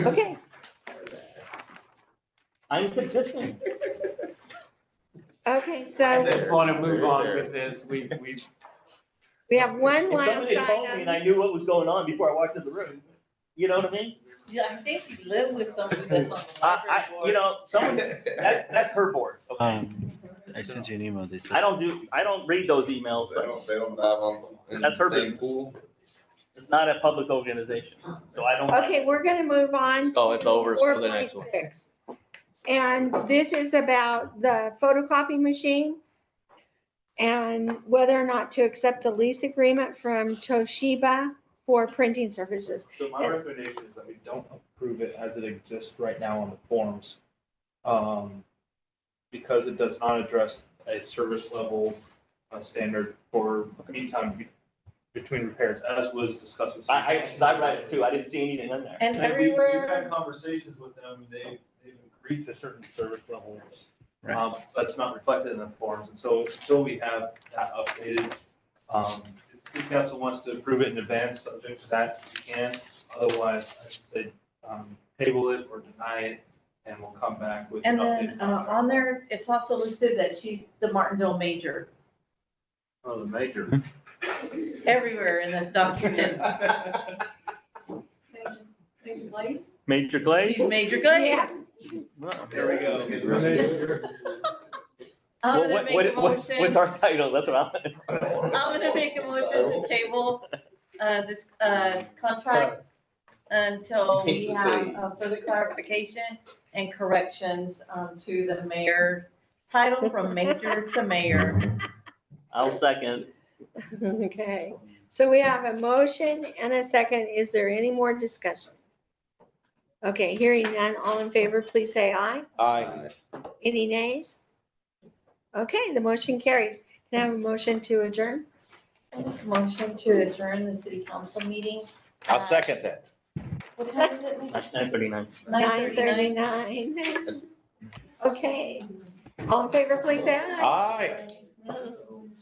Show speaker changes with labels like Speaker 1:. Speaker 1: Okay,
Speaker 2: I'm consistent.
Speaker 1: okay,
Speaker 3: I
Speaker 1: so
Speaker 3: think-
Speaker 4: just want to move on with this. We, we,
Speaker 1: we have one
Speaker 2: If
Speaker 1: last
Speaker 2: somebody had told me and
Speaker 1: item.
Speaker 2: I knew what was going on before I walked in the room, you know what I mean?
Speaker 5: Yeah, I think you live with somebody that's on the
Speaker 2: I,
Speaker 5: library
Speaker 2: I, you
Speaker 5: board.
Speaker 2: know, someone, that's, that's her board, okay?
Speaker 6: Um, I sent you an email. They said.
Speaker 2: I don't do, I don't read those emails,
Speaker 3: They
Speaker 2: so
Speaker 3: don't, they don't dive on. in
Speaker 2: That's her
Speaker 3: the same
Speaker 2: business.
Speaker 3: pool.
Speaker 2: it's not a public organization, so I don't.
Speaker 1: Okay, we're gonna move on.
Speaker 7: Oh, it's over, it's for the next one.
Speaker 1: 4.6. And this is about the photocopy machine and whether or not to accept the lease agreement from Toshiba for printing services.
Speaker 8: So my recommendation is that we don't approve it as it exists right now on the forms. um, Because it does not address a service level uh, standard for meantime be- between repairs, as was discussed with.
Speaker 2: I, I, 'cause I read it too, I didn't see anything in there.
Speaker 5: And
Speaker 8: And we- we've
Speaker 5: everywhere,
Speaker 8: had conversations with them, they, they've agreed to certain service levels.
Speaker 6: Right.
Speaker 8: Um, That's not reflected in the forms, and so until we have that updated, um, if the council wants to approve it in advance, subject to that, we can. Otherwise, I'd say, um, table it or deny it, and we'll come back with. an
Speaker 5: and then,
Speaker 8: updated
Speaker 5: uh,
Speaker 8: contract.
Speaker 5: on there, it's also listed that she's the Martinville major,
Speaker 8: Oh, the major.
Speaker 5: everywhere in this document.
Speaker 9: Major Blaze?
Speaker 2: Major Glaze?
Speaker 5: She's Major Glaze.
Speaker 1: Yeah.
Speaker 2: Well,
Speaker 8: There we go.
Speaker 5: I'm gonna
Speaker 2: what,
Speaker 5: make a
Speaker 2: what, what, what's
Speaker 5: motion,
Speaker 2: our title, that's what I'm.
Speaker 5: I'm gonna make a motion to table, uh, this, uh, contract until we have uh, further clarification and corrections, um, to the mayor, title from major to mayor.
Speaker 2: I'll second.
Speaker 1: Okay, so we have a motion and a second. Is there any more discussion? Okay, hearing none, all in favor, please say aye.
Speaker 7: Aye.
Speaker 1: Any nays? Okay, the motion carries. Can I have a motion to adjourn?
Speaker 5: Motion to adjourn the city council meeting.
Speaker 7: I'll second that.
Speaker 5: What time is it?
Speaker 2: Nine thirty-nine.
Speaker 1: Nine
Speaker 5: 9:39.
Speaker 1: thirty-nine. Okay, all in favor, please say aye.
Speaker 7: Aye.
Speaker 5: Mhm.